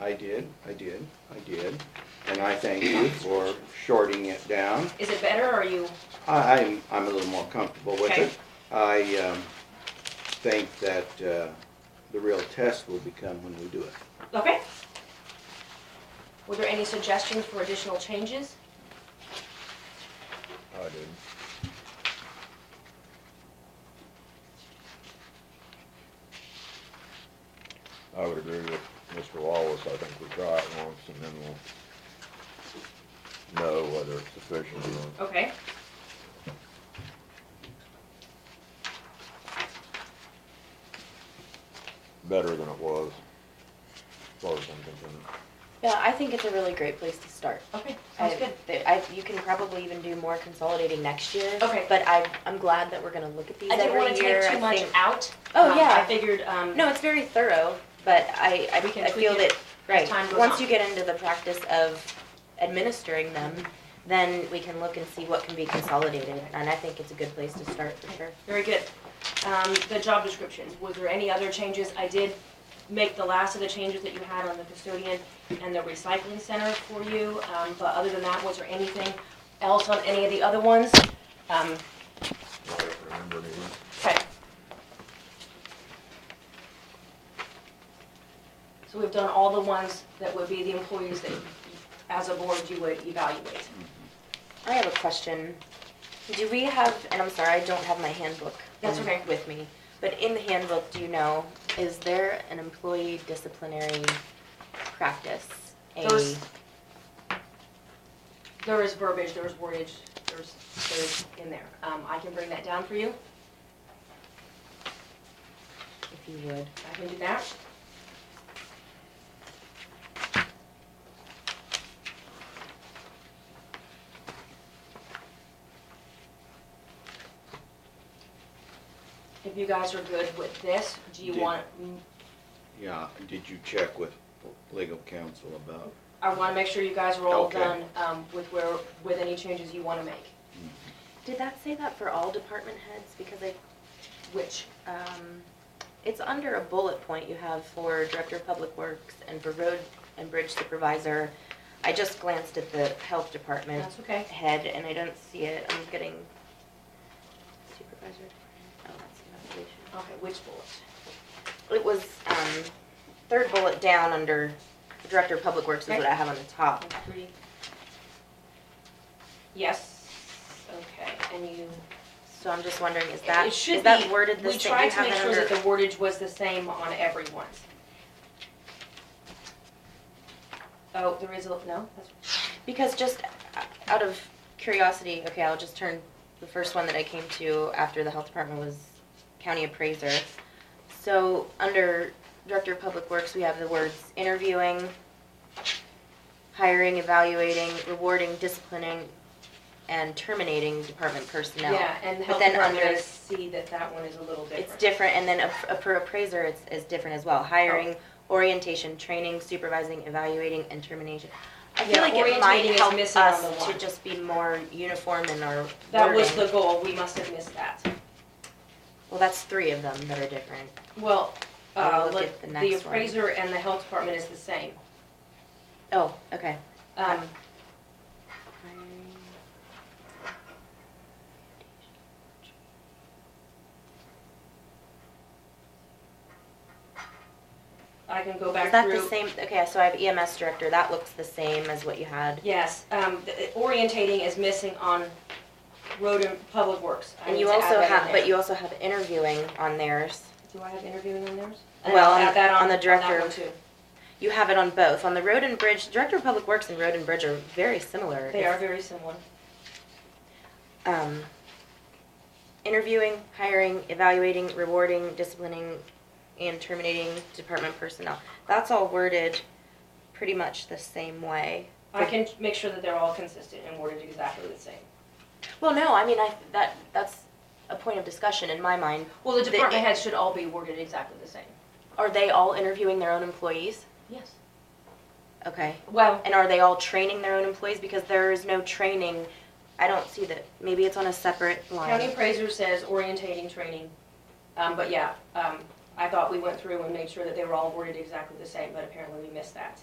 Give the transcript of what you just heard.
I did, I did, I did, and I thank you for shorting it down. Is it better or are you, I, I'm, I'm a little more comfortable with Okay. it. I, um, think that, uh, the real test will become when we do it. okay? Were there any suggestions for additional changes? I did. I would agree with Mr. Wallace, I think we try it once and then we'll know whether it's sufficient or not. Okay. better than it was, as far as I'm concerned. Yeah, I think it's a really great place to start. Okay, sounds I- good. th- I, you can probably even do more consolidating next year. Okay. But I, I'm glad that we're gonna look at these I didn't every wanna year. take too I much think- out. Oh, Um, yeah. I figured, um, No, it's very thorough, but I, I, We can I feel tweak that, it right, time goes on. once you get into the practice of administering them, then we can look and see what can be consolidated, and I think it's a good place to start for sure. very good. Um, the job descriptions, was there any other changes? I did make the last of the changes that you had on the custodian and the recycling center for you, um, but other than that, was there anything else on any of the other ones? Um, I don't remember anything. Okay. So we've done all the ones that would be the employees that, as a board, you would evaluate. I have a question. Do we have, and I'm sorry, I don't have my handbook. That's in- okay. With me, but in the handbook, do you know, is there an employee disciplinary practice? A- Those- There is verbiage, there's wordage, there's, there's in there. Um, I can bring that down for you, If you would. I can do that. If you guys are good with this, do you Did- want Yeah, did you check with legal counsel about? I want to make sure you guys are all Okay. done um, with where, with any changes you want to make. Did that say that for all department heads? Because I Which, Um, it's under a bullet point you have for Director of Public Works and for Road and Bridge Supervisor. I just glanced at the Health Department that's okay. head and I don't see it, I'm getting Supervisor, oh, that's evaluation. Okay, which bullet? It was, um, third bullet down under Director of Public Works is what I have on the top. One, three. Yes, okay, and you. So I'm just wondering, is that, It is should that be- worded the We same? tried to You have make that sure that under- the wordage was the same on everyone's. Oh, there is a, no, that's, Because just out of curiosity, okay, I'll just turn, the first one that I came to after the health department was county appraiser. So, under director of public works, we have the words interviewing, hiring, evaluating, rewarding, disciplining, and terminating department personnel. yeah, and the But health then department, I under- see that that one is a little different. It's different, and then a- a- for appraiser, it's, is different as well, hiring, Oh. orientation, training, supervising, evaluating, and termination. I Yeah, feel like it orientating might is help missing on the us to one. just be more uniform in our That was the wording. goal, we must have missed that. Well, that's three of them that are different. Well, I'll uh, look look, at the the next one. appraiser and the health department is the same. Oh, okay. Um, I can go back Is through. that the same, okay, so I have EMS director, that looks the same as what you had. Yes, um, the- the orientating is missing on road and public works. I And need you to add also that in have, there. but you also have interviewing on theirs. Do I have interviewing on theirs? And Well, I'll on add the- that on the that director. one too. You have it on both. On the road and bridge, director of public works and road and bridge are very similar. They are very similar. um, interviewing, hiring, evaluating, rewarding, disciplining, and terminating department personnel. That's all worded pretty much the same way. I can make sure that they're all consistent and worded exactly the same. Well, no, I mean, I, that, that's a point of discussion in my mind. Well, the The- department heads should all be worded exactly the same. Are they all interviewing their own employees? Yes. Okay. Well, And are they all training their own employees? Because there is no training, I don't see that, maybe it's on a separate county line. appraiser says orientating training, um, but yeah, um, I thought we went through and made sure that they were all worded exactly the same, but apparently we missed that.